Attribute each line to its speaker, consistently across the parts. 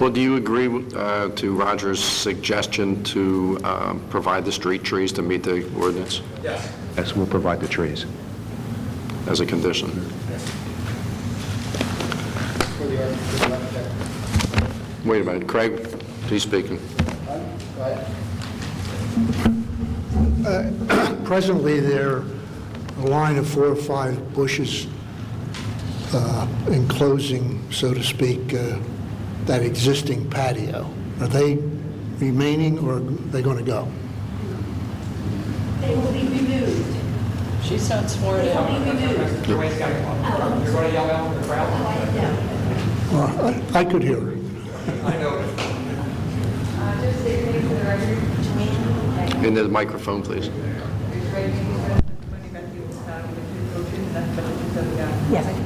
Speaker 1: Well, do you agree uh, to Roger's suggestion to um, provide the street trees to meet the ordinance
Speaker 2: Yes, we'll provide the trees.
Speaker 1: as a condition?
Speaker 3: for the architect, architect.
Speaker 1: Wait a minute, Craig, he's speaking.
Speaker 4: Presently, there are a line of four or five bushes uh, enclosing, so to speak, uh, that existing patio. Are they remaining, or are they going to go?
Speaker 5: They will be removed.
Speaker 6: She's not sworn in.
Speaker 7: You're going to yell out in the crowd?
Speaker 5: I know.
Speaker 4: Well, I I could hear her.
Speaker 7: I know.
Speaker 8: Uh, Just state your name for the record. Joanne.
Speaker 1: In the microphone, please.
Speaker 8: Yes.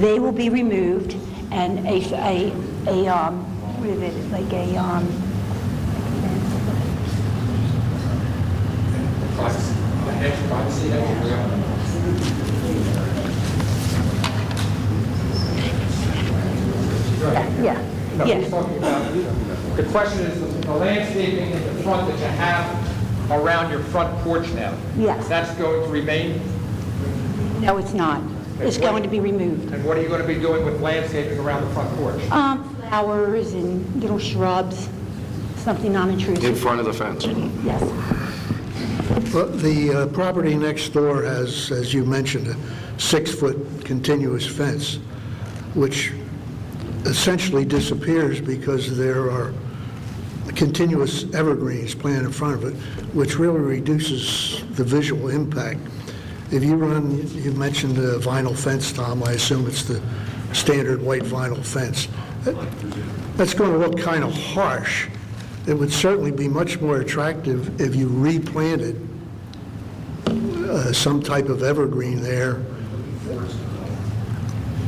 Speaker 5: They will be removed and a, a, a, um, what is it, like a, um,
Speaker 7: Privacy, the hedge privacy, that's real.
Speaker 5: yeah,
Speaker 7: No, he's
Speaker 5: yeah.
Speaker 7: talking about, the question is the landscaping in the front that you have around your front porch now.
Speaker 5: Yes.
Speaker 7: That's going to remain,
Speaker 5: No, it's not. It's going to be removed.
Speaker 7: and what are you going to be doing with landscaping around the front porch?
Speaker 5: Um, flowers and little shrubs, something
Speaker 1: In
Speaker 5: non-intrusive,
Speaker 1: front of the fence.
Speaker 5: yes.
Speaker 4: Well, The uh, property next door has, as you mentioned, a six-foot continuous fence, which essentially disappears because there are continuous evergreens planted in front of it, which really reduces the visual impact. If you run, you mentioned the vinyl fence, Tom, I assume it's the standard white vinyl fence. That- That's going to look kind of harsh. It would certainly be much more attractive if you replanted uh, some type of evergreen there.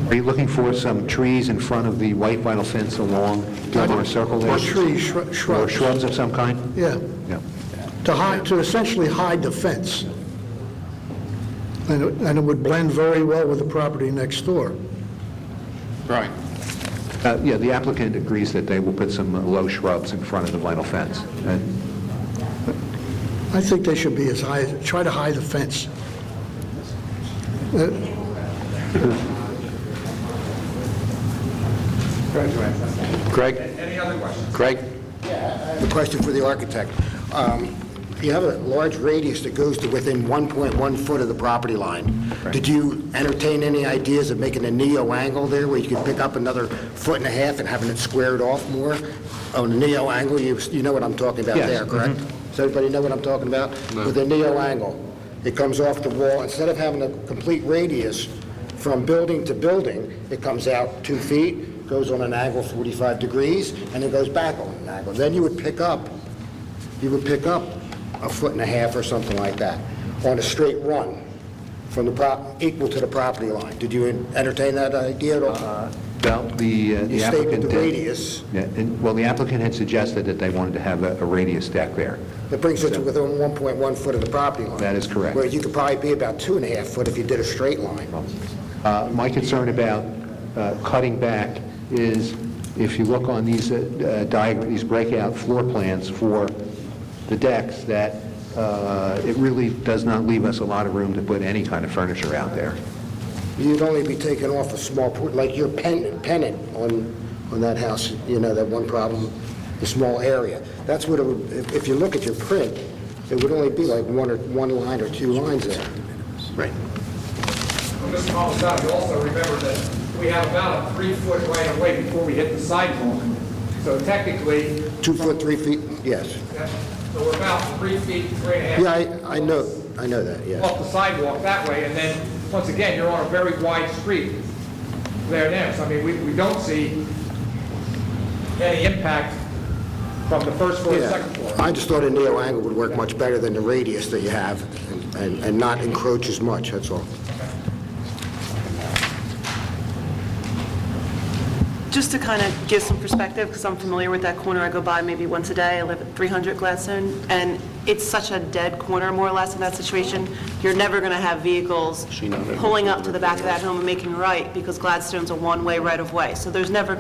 Speaker 2: Are you looking for some trees in front of the white vinyl fence along Gilmore Circle there?
Speaker 4: Or trees, shrub-
Speaker 2: Or
Speaker 4: shrubs,
Speaker 2: shrubs of some kind?
Speaker 4: yeah,
Speaker 2: Yeah.
Speaker 4: to hide, to essentially hide the fence. And it- and it would blend very well with the property next door.
Speaker 1: Right.
Speaker 2: Uh, Yeah, the applicant agrees that they will put some uh, low shrubs in front of the vinyl fence. Uh, And
Speaker 4: I think they should be as high, try to hide the fence. Uh,
Speaker 1: Craig?
Speaker 7: Any other questions?
Speaker 1: Craig?
Speaker 3: A question for the architect. Um, You have a large radius that goes to within 1.1 foot of the property line. Did you entertain any ideas of making a neo angle there where you could pick up another foot and a half and having it squared off more? On a neo angle, you, you know what I'm talking about
Speaker 2: Yes,
Speaker 3: there, correct? Does everybody know what I'm talking about? With a neo angle, it comes off the wall, instead of having a complete radius from building to building, it comes out two feet, goes on an angle 45 degrees, and it goes back on an angle. Then you would pick up you would pick up a foot and a half or something like that on a straight run from the prop, equal to the property line. Did you entertain that idea at
Speaker 2: Uh-huh.
Speaker 3: all?
Speaker 2: well, the uh,
Speaker 3: You
Speaker 2: the
Speaker 3: stated
Speaker 2: applicant...
Speaker 3: the
Speaker 2: did-
Speaker 3: radius.
Speaker 2: Yeah, and- Well, the applicant had suggested that they wanted to have a a radius deck there.
Speaker 3: It brings it to within 1.1 foot of the property line.
Speaker 2: That is correct.
Speaker 3: Where you could probably be about two and a half foot if you did a straight line.
Speaker 2: Uh, My concern about uh, cutting back is, if you look on these diagrams, these breakout floor plans for the decks, that uh, it really does not leave us a lot of room to put any kind of furniture out there.
Speaker 3: You'd only be taking off a small, por- like your pennant, pennant on, on that house, you know, that one problem, the small area. That's what it would, if- if you look at your print, it would only be like one or, one line or two lines there. Right.
Speaker 7: Well, Mr. Malasati, also remember that we have about a three-foot right of way before we hit the sidewalk. So technically,
Speaker 3: Two foot, three feet, yes.
Speaker 7: that's- so we're about three feet, three and a half.
Speaker 3: Yeah, I, I know, I know that, yes.
Speaker 7: off the sidewalk that way, and then, once again, you're on a very wide street there now. So I mean, we, we don't see any impact from the first floor to the second
Speaker 3: Yeah,
Speaker 7: floor.
Speaker 3: I just thought a neo angle would work much better than the radius that you have and, and not encroach as much, that's all.
Speaker 9: Just to kind of give some perspective, because I'm familiar with that corner, I go by maybe once a day, I live at 300 Gladstone, and it's such a dead corner, more or less, in that situation. You're never going to have vehicles pulling up to the back of that home and making a right, because Gladstone's a one-way right-of-way, so there's never